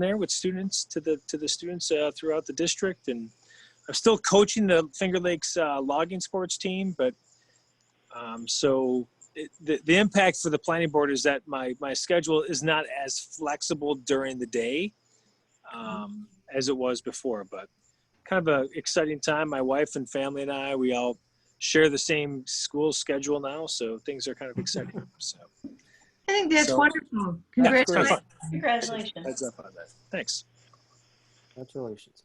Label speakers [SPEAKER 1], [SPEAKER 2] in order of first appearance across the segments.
[SPEAKER 1] there with students to the to the students uh, throughout the district and i'm still coaching the finger lakes uh, logging sports team but um, so it, the, the impact for the planning board is that my my schedule is not as flexible during the day um, as it was before but kind of a exciting time my wife and family and i we all share the same school schedule now so things are kind of exciting so
[SPEAKER 2] I think that's
[SPEAKER 1] So-
[SPEAKER 2] wonderful.
[SPEAKER 1] yeah,
[SPEAKER 2] Congratulations.
[SPEAKER 1] heads
[SPEAKER 3] Congratulations.
[SPEAKER 1] up on that thanks
[SPEAKER 4] Congratulations.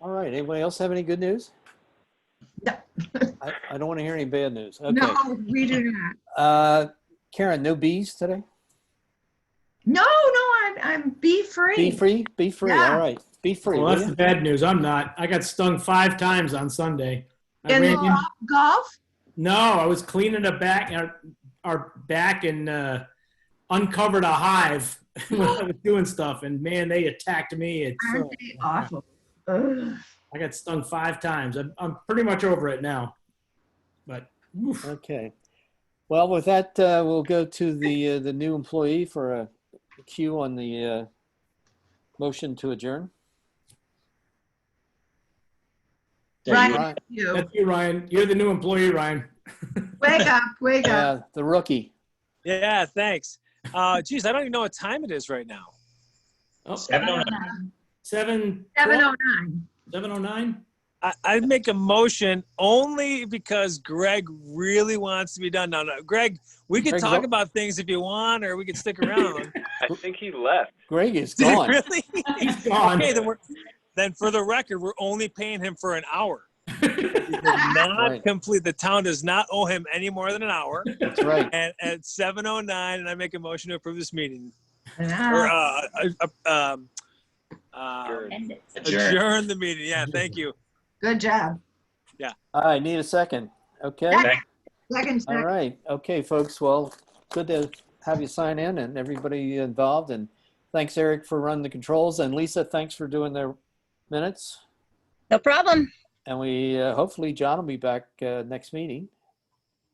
[SPEAKER 4] All right, anybody else have any good news?
[SPEAKER 2] No.
[SPEAKER 4] I, I don't want to hear any bad news. Okay.
[SPEAKER 2] No, we do not.
[SPEAKER 4] Uh, Karen, no bees today?
[SPEAKER 2] No, no, I'm, I'm bee
[SPEAKER 4] Be
[SPEAKER 2] free.
[SPEAKER 4] free, be free,
[SPEAKER 2] Yeah.
[SPEAKER 4] all right, be free. will
[SPEAKER 5] Well, that's the
[SPEAKER 4] ya?
[SPEAKER 5] bad news. I'm not. I got stung five times on Sunday. I
[SPEAKER 2] In
[SPEAKER 5] ran in-
[SPEAKER 2] golf- golf?
[SPEAKER 5] no, I was cleaning a back, our, our back, and uh, uncovered a hive when I was doing stuff. And man, they attacked me. It's, uh,
[SPEAKER 2] Aren't they awful? Ugh.
[SPEAKER 5] I got stung five times. I'm, I'm pretty much over it now. But oof.
[SPEAKER 4] Okay. Well, with that, uh, we'll go to the, uh, the new employee for a cue on the, uh, motion to adjourn.
[SPEAKER 2] Ryan, you.
[SPEAKER 5] that's you, Ryan. You're the new employee, Ryan.
[SPEAKER 2] Wake up, wake up.
[SPEAKER 4] Uh, the rookie.
[SPEAKER 1] Yeah, thanks. Uh, geez, I don't even know what time it is right now.
[SPEAKER 3] Seven oh nine.
[SPEAKER 5] Seven.
[SPEAKER 2] 709.
[SPEAKER 5] 709?
[SPEAKER 1] I, I make a motion only because Greg really wants to be done. No, no, Greg, we could
[SPEAKER 4] Greg's
[SPEAKER 1] talk
[SPEAKER 4] up.
[SPEAKER 1] about things if you want, or we could stick around.
[SPEAKER 6] I think he left.
[SPEAKER 4] Greg is
[SPEAKER 1] Did it
[SPEAKER 4] gone.
[SPEAKER 1] really?
[SPEAKER 5] He's gone.
[SPEAKER 1] Okay, then we're then for the record, we're only paying him for an hour. He did not
[SPEAKER 4] Right.
[SPEAKER 1] complete. The town does not owe him any more than an hour.
[SPEAKER 4] That's right.
[SPEAKER 1] And at 7:09, and I make a motion to approve this meeting or
[SPEAKER 2] Ah,
[SPEAKER 1] uh, uh, uh, um, uh,
[SPEAKER 3] End it.
[SPEAKER 6] Adjourned.
[SPEAKER 1] adjourn the meeting. Yeah, thank you.
[SPEAKER 2] Good job.
[SPEAKER 4] I need a second. Okay.
[SPEAKER 2] Second,
[SPEAKER 4] All
[SPEAKER 2] second.
[SPEAKER 4] right. Okay, folks. Well, good to have you sign in and everybody involved. And thanks, Eric, for running the controls. And Lisa, thanks for doing the minutes.
[SPEAKER 7] No problem.
[SPEAKER 4] And we, uh, hopefully, John will be back uh, next meeting.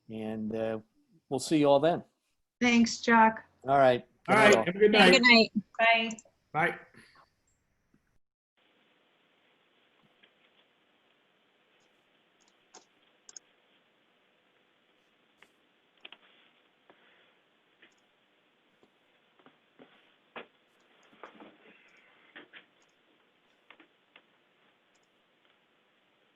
[SPEAKER 4] And uh, we'll see you all then.
[SPEAKER 2] Thanks, Chuck.
[SPEAKER 4] All right.
[SPEAKER 5] All
[SPEAKER 4] Good
[SPEAKER 5] right.
[SPEAKER 4] all.
[SPEAKER 5] Have a good
[SPEAKER 7] Have a
[SPEAKER 5] night.
[SPEAKER 7] good night.
[SPEAKER 3] Bye.
[SPEAKER 5] Bye.